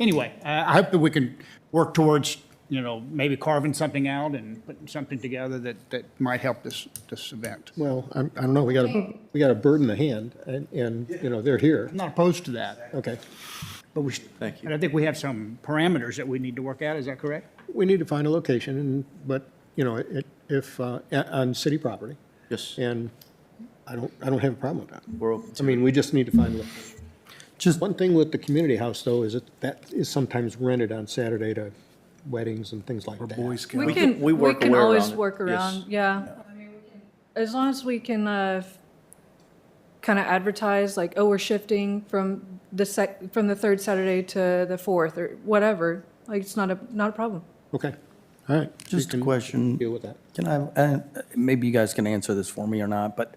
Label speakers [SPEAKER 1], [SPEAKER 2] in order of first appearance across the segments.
[SPEAKER 1] Anyway, uh, I I hope that we can work towards, you know, maybe carving something out and putting something together that, that might help this, this event.
[SPEAKER 2] Well, I'm- I don't know, we got a, we got a bird in the hand, and, and, you know, they're here.
[SPEAKER 1] I'm not opposed to that,
[SPEAKER 2] Okay.
[SPEAKER 1] but we. Thank you. And I think we have some parameters that we need to work out, is that correct?
[SPEAKER 2] We need to find a location, and, but, you know, it- if, uh, a- on city property,
[SPEAKER 3] Yes,
[SPEAKER 2] and I don't, I don't have a problem with that.
[SPEAKER 3] we're open
[SPEAKER 2] I
[SPEAKER 3] to it.
[SPEAKER 2] mean, we just need to find a location.
[SPEAKER 4] Just,
[SPEAKER 2] One thing with the community house, though, is that that is sometimes rented on Saturday to weddings and things like that.
[SPEAKER 4] Boy
[SPEAKER 5] We
[SPEAKER 4] Scout.
[SPEAKER 5] can,
[SPEAKER 3] we
[SPEAKER 5] we
[SPEAKER 3] work
[SPEAKER 5] can
[SPEAKER 3] away
[SPEAKER 5] always
[SPEAKER 3] around it,
[SPEAKER 5] work
[SPEAKER 3] yes.
[SPEAKER 5] around, yeah. As long as we can kind of advertise, like, oh, we're shifting from the sec, from the third Saturday to the fourth, or whatever. Like, it's not a, not a problem.
[SPEAKER 2] Okay, all right. we
[SPEAKER 4] just a
[SPEAKER 2] can
[SPEAKER 4] question.
[SPEAKER 2] Deal with that.
[SPEAKER 4] Can I, uh, maybe you guys can answer this for me or not, but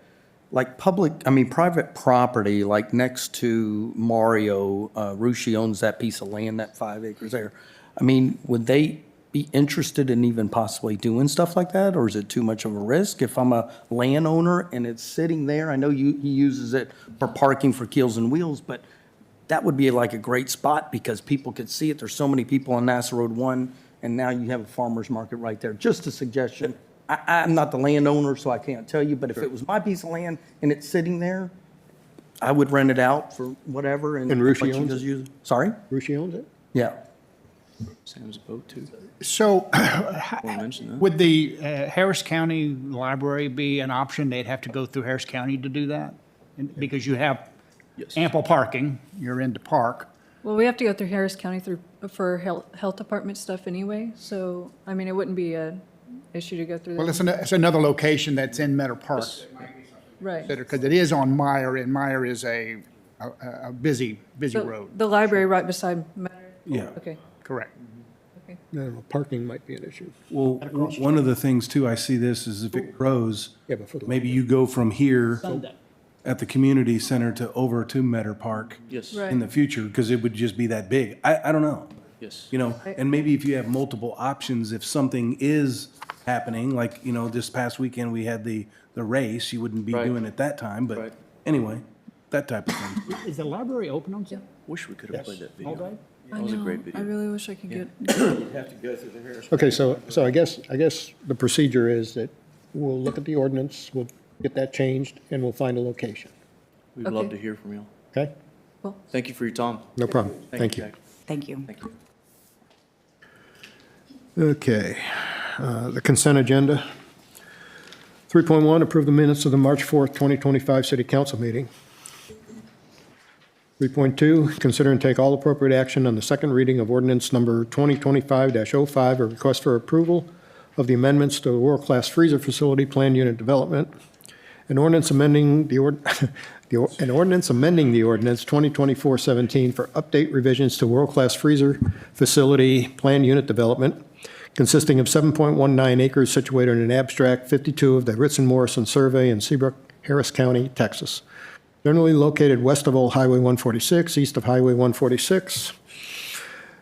[SPEAKER 4] like public, I mean, private property, like next to Mario, uh, Rushi owns that piece of land, that five acres there. I mean, would they be interested in even possibly doing stuff like that? Or is it too much of a risk? If I'm a landowner and it's sitting there, I know you, he uses it for parking for Keels and Wheels, but that would be like a great spot because people could see it. There's so many people on Nassau Road One, and now you have a farmer's market right there. Just a suggestion. I, I'm not the landowner, so I can't tell you, but if it was my piece of land and it's sitting there, I would rent it out for whatever and.
[SPEAKER 2] And Rushi
[SPEAKER 4] let you
[SPEAKER 2] owns
[SPEAKER 4] guys use- Sorry?
[SPEAKER 2] Rushi owns it?
[SPEAKER 4] Yeah.
[SPEAKER 3] Sam's boat too.
[SPEAKER 1] So
[SPEAKER 3] Want to mention that?
[SPEAKER 1] would the uh, Harris County Library be an option? They'd have to go through Harris County to do that? And- Because you have
[SPEAKER 3] Yes.
[SPEAKER 1] ample parking, you're in the park.
[SPEAKER 5] Well, we have to go through Harris County through, for health, health department stuff anyway, so, I mean, it wouldn't be an issue to go through
[SPEAKER 1] Well,
[SPEAKER 5] that.
[SPEAKER 1] it's, an- it's another location that's in Meadow Park.
[SPEAKER 5] Right.
[SPEAKER 1] Because it is on Meyer, and Meyer is a, a- a, a busy, busy
[SPEAKER 5] The
[SPEAKER 1] road.
[SPEAKER 5] the library right beside, Ma-
[SPEAKER 4] Yeah.
[SPEAKER 5] okay.
[SPEAKER 1] Correct.
[SPEAKER 2] I don't know, parking might be an issue.
[SPEAKER 4] Well,
[SPEAKER 1] across the
[SPEAKER 4] one of the things too, I see this is if it grows,
[SPEAKER 2] Yeah, but for the-
[SPEAKER 4] maybe you go from here at the community center to over to Metter Park.
[SPEAKER 3] Yes,
[SPEAKER 5] Right.
[SPEAKER 4] in the future, because it would just be that big. I, I don't know.
[SPEAKER 3] yes.
[SPEAKER 4] You know, and maybe if you have multiple options, if something is happening, like, you know, this past weekend, we had the, the race, you wouldn't be
[SPEAKER 3] Right.
[SPEAKER 4] doing it that time, but
[SPEAKER 3] Right.
[SPEAKER 4] anyway, that type of thing.
[SPEAKER 1] Is the library open on Sunday?
[SPEAKER 3] Wish we could have played that
[SPEAKER 1] All
[SPEAKER 3] video.
[SPEAKER 1] day?
[SPEAKER 5] I
[SPEAKER 3] That was a
[SPEAKER 5] know.
[SPEAKER 3] great
[SPEAKER 5] I
[SPEAKER 3] video.
[SPEAKER 5] really wish I could get,
[SPEAKER 2] Okay, so, so I guess, I guess the procedure is that we'll look at the ordinance, we'll get that changed, and we'll find a location,
[SPEAKER 3] We'd love
[SPEAKER 5] Okay.
[SPEAKER 3] to hear from you. all.
[SPEAKER 2] okay?
[SPEAKER 3] Thank you for your time.
[SPEAKER 2] No problem, thank you.
[SPEAKER 3] Jack.
[SPEAKER 6] Thank you.
[SPEAKER 3] Thank you.
[SPEAKER 2] Okay, uh, the consent agenda. 3.1, approve the minutes of the March 4th, 2025 City Council meeting. 3.2, consider and take all appropriate action on the second reading of ordinance number 2025-05, a request for approval of the amendments to the world-class freezer facility plan unit development. An ordinance amending the, ord- the or- an ordinance amending the ordinance 2024-17 for update revisions to world-class freezer facility plan unit development consisting of 7.19 acres situated in an abstract 52 of the Ritz and Morrison Survey in Seabrook, Harris County, Texas. Generally located west of Old Highway 146, east of Highway 146,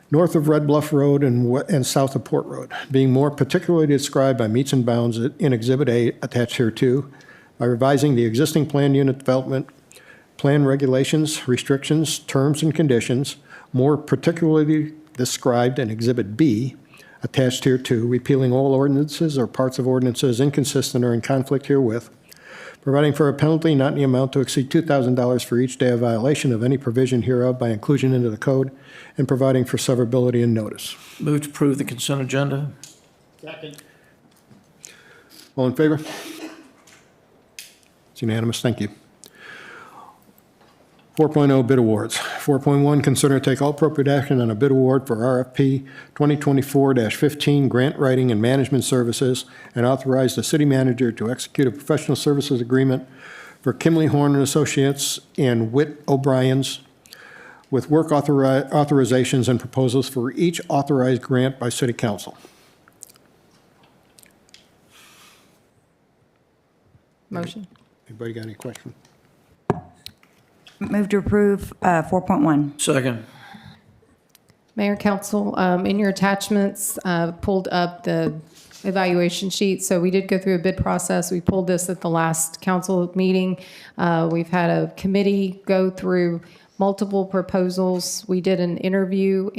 [SPEAKER 2] north of Red Bluff Road and, we- and south of Port Road, being more particularly described by meets and bounds in Exhibit A attached here too, by revising the existing plan unit development, plan regulations, restrictions, terms, and conditions, more particularly described in Exhibit B attached here too, repealing all ordinances or parts of ordinances inconsistent or in conflict herewith, providing for a penalty not in the amount to exceed $2,000 for each day of violation of any provision hereof by inclusion into the code, and providing for severability and notice.
[SPEAKER 7] Move to approve the consent agenda?
[SPEAKER 2] All in favor? It's unanimous, thank you. 4.0 bid awards. 4.1, consider and take all appropriate action on a bid award for RFP 2024-15 Grant Writing and Management Services, and authorize the city manager to execute a professional services agreement for Kimley Horn and Associates and Witt O'Brien's with work authori- authorizations and proposals for each authorized grant by city council.
[SPEAKER 5] motion.
[SPEAKER 2] Anybody got any questions?
[SPEAKER 6] Move to approve uh, 4.1.
[SPEAKER 7] Second.
[SPEAKER 8] Mayor, council, um, in your attachments, uh, pulled up the evaluation sheet. So we did go through a bid process. We pulled this at the last council meeting. Uh, We've had a committee go through multiple proposals. We did an interview